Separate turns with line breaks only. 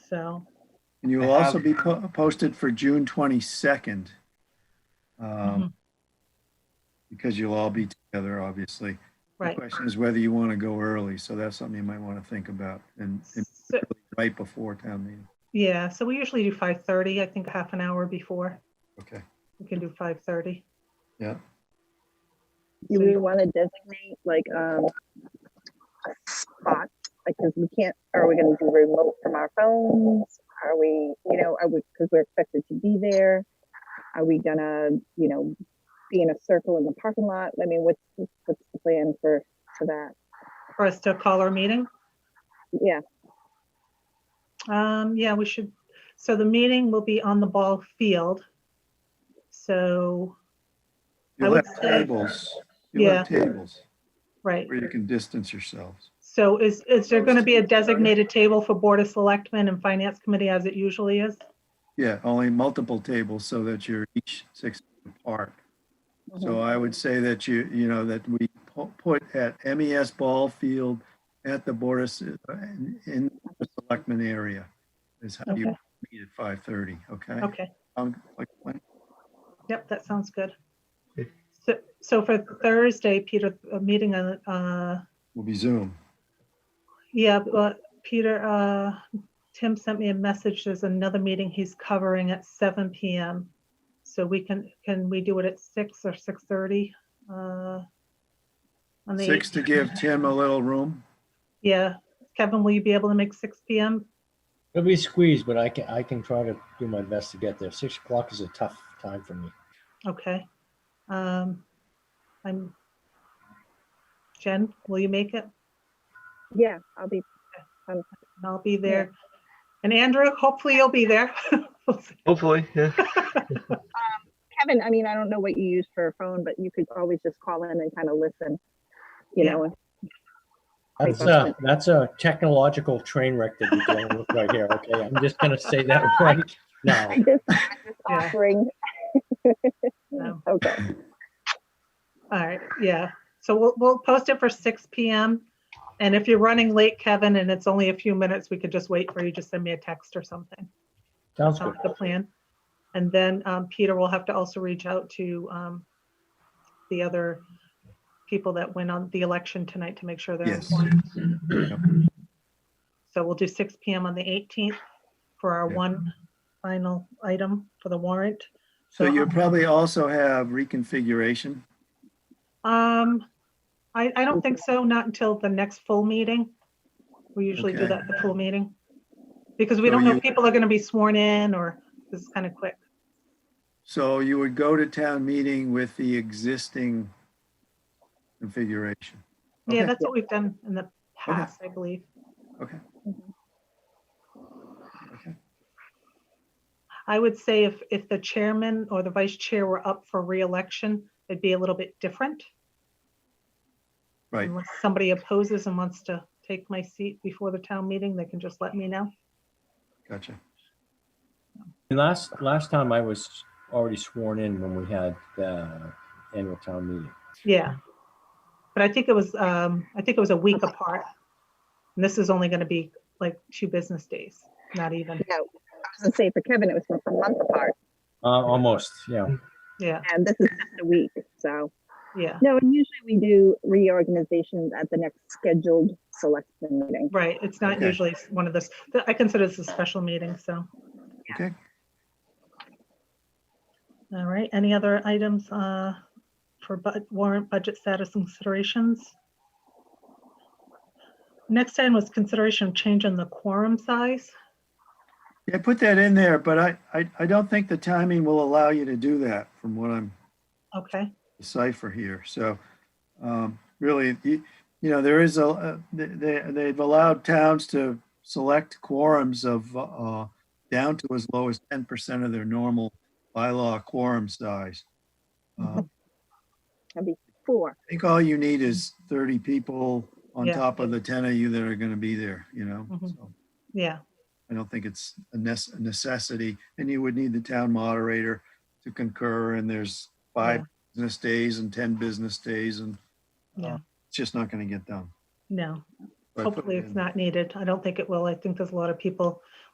Sal.
And you will
I have-
also be po- posted for June twenty-second.
Mm-hmm.
Um, because you'll all be together, obviously. The
Right.
question is whether you want to go early, so that's something you might want to think about and, and
So,
right before town meeting.
yeah, so we usually do five thirty, I think half an hour before.
Okay,
We can do five thirty.
yeah.
Do
Mm.
we want to designate like um a spot? Like, because we can't. Are we going to do remote from our phones? Are we, you know, are we because we're expected to be there? Are we gonna, you know, be in a circle in the parking lot? I mean, what's what's the plan for for that?
For us to call our meeting?
Yeah,
Um, yeah, we should, so the meeting will be on the ball field. So, I
You'll
would
have
say-
tables, you'll have tables
right,
where you can distance yourselves.
so is, is there going to be a designated table for Board of Selectmen and Finance Committee as it usually is?
Yeah, only multiple tables so that you're each six feet apart.
Uh-huh.
So I would say that you, you know, that we pu- put at MES Ball Field at the Board of, Se- uh, in in the Selectmen area is how you
Okay.
meet at 5:30, okay?
Okay,
Um, like, when-
yep, that sounds good. So, so for Thursday, Peter, a meeting on, uh,
Will be Zoom.
Yeah, but Peter, uh, Tim sent me a message. There's another meeting he's covering at seven PM. So we can, can we do it at six or six thirty? On the
Six to give Tim a little room.
Yeah. Kevin, will you be able to make six PM?
It'll be squeezed, but I can, I can try to do my best to get there. Six o'clock is a tough time for me.
Okay. Um, I'm. Jen, will you make it?
yeah. I'll be.
And I'll be there. And Andrew, hopefully you'll be there.
Hopefully, yeah.
Kevin, I mean, I don't know what you use for a phone, but you could always just call in and kind of listen. You
Yeah.
know,
That's a, that's a technological train wreck that you're dealing with right here, okay? I'm just gonna say that right now.
I'm just, I'm just
Yeah.
offering.
No.
Okay.
All right, yeah. So we'll, we'll post it for six PM. And if you're running late, Kevin, and it's only a few minutes, we could just wait for you. Just send me a text or something.
Sounds good.
Sounds the plan. And then um, Peter will have to also reach out to um, the other people that went on the election tonight to make sure they're
Yes.
informed.
Yep.
So we'll do six PM on the eighteenth for our
Yeah.
one final item for the warrant.
So
So-
you probably also have reconfiguration.
Um, I, I don't think so, not until the next full meeting. We usually do
Okay.
that, the full meeting. Because we
So
don't know
you-
if people are gonna be sworn in or this is kind of quick.
So you would go to town meeting with the existing configuration.
Yeah,
Okay.
that's what we've done in the past, I believe. Mm-hmm.
Okay.
Mhm.
Okay.
I would say if, if the chairman or the vice chair were up for reelection, it'd be a little bit different.
Right.
Unless somebody opposes and wants to take my seat before the town meeting, they can just let me know.
Gotcha.
And last, last time I was already sworn in when we had the annual town meeting.
Yeah. But I think it was, um, I think it was a week apart. And this is only gonna be like two business days, not even,
No, I was gonna say for Kevin, it was a month apart,
Uh, almost, yeah.
yeah,
and this is just a week. So
yeah,
no, and usually we do reorganizations at the next scheduled selection meeting.
right. It's not
Okay.
usually one of those, I consider this a special meeting, so.
Okay.
All right, any other items, uh, for bud warrant budget status and considerations? Next item was consideration of change in the quorum size.
Yeah, put that in there, but I, I, I don't think the timing will allow you to do that from what I'm
Okay,
decipher here. So um, really, you, you know, there is a, uh, they, they- they've allowed towns to select quorums of uh, down to as low as 10% of their normal bylaw quorum size. Um,
That'd be four.
I think all you need is 30 people on
Yeah.
top of the 10 of you that are going to be there, you know?
Mhm.
So
yeah,
I don't think it's a nes- a necessity. And you would need the town moderator to concur and there's five
Yeah.
business days and 10 business days and
yeah,
it's just not going to get done.
no.
So I put
Hopefully
it
it's
in.
not needed. I don't think it will. I think there's a lot of people